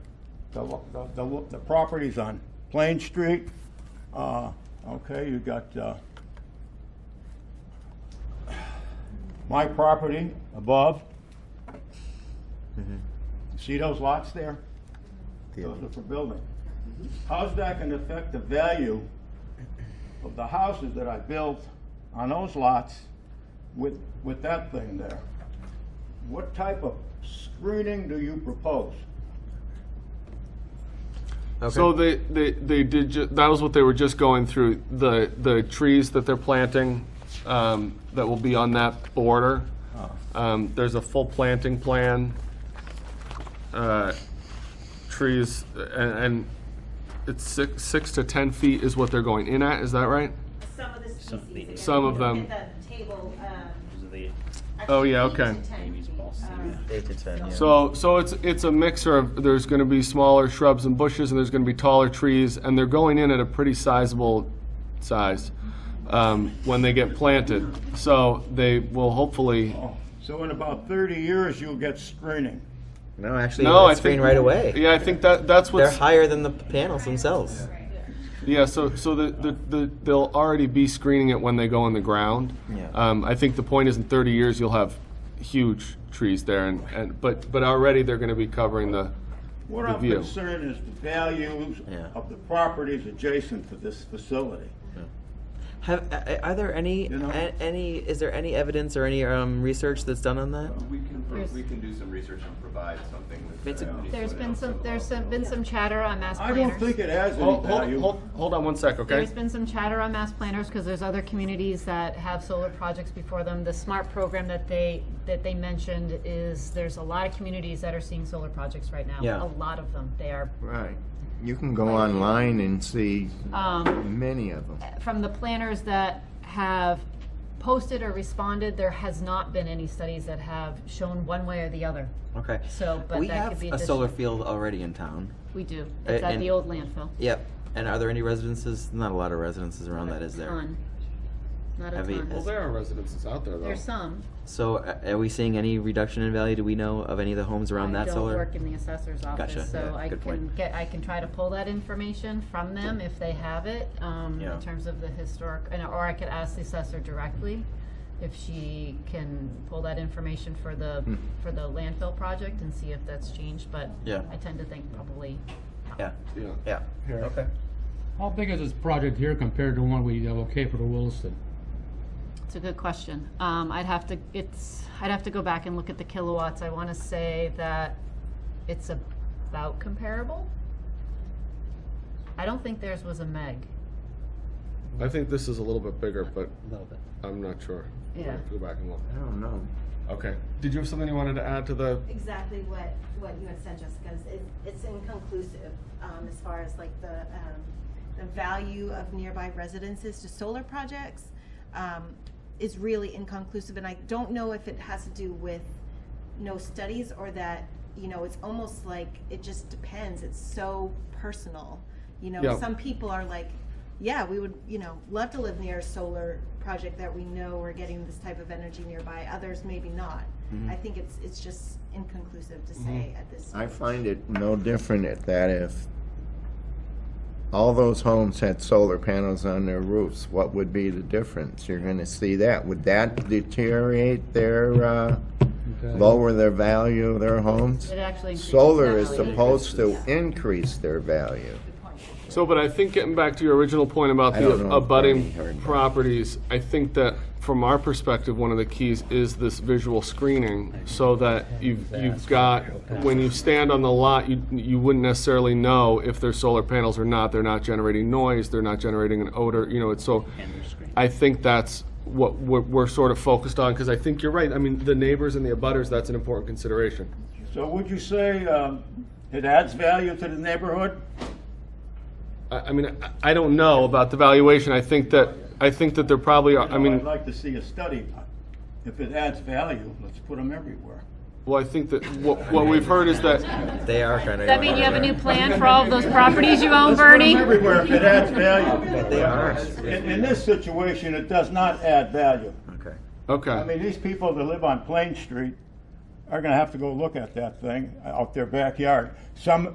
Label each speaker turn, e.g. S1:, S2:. S1: the, lo- the, the lo- the properties on Plain Street, uh, okay, you got, uh, my property above. You See those lots there? Those are for building. How's that gonna affect the value of the houses that I built on those lots with, with that thing there? What type of screening do you propose?
S2: So they, they, they did, ju- that was what they were just going through, the, the trees that they're planting, um, that will be on that border. Um, there's a full planting plan. Uh, Trees, and, and it's six, six to 10 feet is what they're going in at, is that right?
S3: Some of the species. again,
S2: Some of
S3: if you look
S2: them.
S3: At the table, um.
S2: Oh, yeah,
S3: actually,
S2: okay.
S3: eight to 10 feet, um,
S4: Eight to ten, yeah.
S2: So, so it's, it's a mixer of, there's gonna be smaller shrubs and bushes, and there's gonna be taller trees, and they're going in at a pretty sizable size, um, when they get planted. So they will hopefully,
S1: Oh, So in about 30 years, you'll get screening.
S4: No, actually,
S2: No, I
S4: it's green
S2: think-
S4: right away.
S2: yeah, I think that, that's
S4: They're
S2: what's,
S4: higher than the panels themselves.
S2: yeah, so, so the, the, the, they'll already be screening it when they go in the ground.
S4: Yeah.
S2: Um, I think the point is in thirty years, you'll have huge trees there, and, and, but, but already they're gonna be covering the,
S1: What
S2: The
S1: I'm
S2: view.
S1: concerned is the values
S4: Yeah.
S1: of the properties adjacent to this facility.
S4: Have a- a- are there any
S1: You know?
S4: a- any is there any evidence or any um, research that's done on that?
S5: We can, pro-
S6: There's-
S5: we can do some research and provide something with.
S4: It's a-
S5: the-
S6: There's been some, there's some- been some chatter on mass
S1: I
S6: planners.
S1: don't think it has any
S2: hold, hold,
S1: value.
S2: hold- hold on one sec, okay?
S6: There's been some chatter on mass planners, because there's other communities that have solar projects before them. The SMART program that they, that they mentioned is, there's a lot of communities that are seeing solar projects right now.
S4: Yeah.
S6: A lot of them, they are.
S7: Right. You can go online and see
S6: Um,
S7: many of them.
S6: From the planners that have posted or responded, there has not been any studies that have shown one way or the other.
S4: Okay.
S6: So, but
S4: we
S6: that
S4: have
S6: could be
S4: a solar
S6: addition-
S4: field already in town.
S6: We do.
S4: Uh,
S6: It's at
S4: and-
S6: the old landfill.
S4: Yep. And are there any residences? Not a lot of residences around that, is there?
S6: Ton. Not a
S4: Have you-
S2: Well,
S6: ton.
S2: there are residences out there, though.
S6: There's some.
S4: So, a- are we seeing any reduction in value? Do we know of any of the homes around
S6: I
S4: that
S6: don't
S4: solar?
S6: work in the assessor's
S4: Gotcha.
S6: office, so
S4: Yeah,
S6: I
S4: good
S6: can
S4: point.
S6: get, I can try to pull that information from them if they have it, um,
S4: Yeah.
S6: in terms of the historic, and, or I could ask the assessor directly if she can pull that information for the,
S4: Hmm.
S6: for the landfill project and see if that's changed, but
S4: Yeah.
S6: I tend to think probably
S4: Yeah.
S2: Yeah.
S4: Yeah. Okay.
S8: How big is this project here compared to one we located for Williston?
S6: It's a good question. Um, I'd have to, it's, I'd have to go back and look at the kilowatts. I want to say that it's about comparable. I don't think theirs was a meg.
S2: I think this is a little bit bigger, but
S4: A little bit.
S2: I'm not sure. We'll
S6: Yeah.
S2: have to Go back and look.
S7: I don't know.
S2: Okay. Did you have something you wanted to add to the?
S3: Exactly what, what you had said, Jessica, is it, it's inconclusive, um, as far as like the, um, the value of nearby residences to solar projects, um, is really inconclusive, and I don't know if it has to do with no studies or that, you know, it's almost like, it just depends, it's so personal. You know,
S2: Yeah.
S3: some people are like, yeah, we would, you know, love to live near a solar project that we know we're getting this type of energy nearby. Others maybe not. I think it's it's just inconclusive to say at this.
S7: I find it no different at that if all those homes had solar panels on their roofs, what would be the difference? You're gonna see that. Would that deteriorate their, uh, lower their value of their homes?
S6: It actually increases.
S7: Solar is
S6: value.
S7: supposed to increase their value.
S2: So, but I think getting back to your original point about
S7: I don't
S2: the
S7: know if Bernie
S2: abutting
S7: heard that.
S2: properties, I think that from our perspective, one of the keys is this visual screening, so that you've, you've got, when you stand on the lot, you, you wouldn't necessarily know if they're solar panels or not, they're not generating noise, they're not generating an odor, you know, it's so. I think that's what we're, we're sort of focused on, because I think you're right, I mean, the neighbors and the abutters, that's an important consideration.
S1: So would you say um, it adds value to the neighborhood?
S2: I, I mean, I, I don't know about the valuation. I think that, I think that there probably are, I
S1: I'd
S2: mean,
S1: like to see a study. If it adds value, let's put them everywhere.
S2: well, I think that what, what we've heard is that,
S4: They are kind of.
S6: Does that mean you have a new plan for all of those properties you own, Bernie?
S1: Everywhere if it adds value.
S4: They are.
S1: In, in this situation, it does not add value.
S4: Okay.
S1: I
S2: okay.
S1: mean, these people that live on Plain Street are gonna have to go look at that thing out their backyard. Some,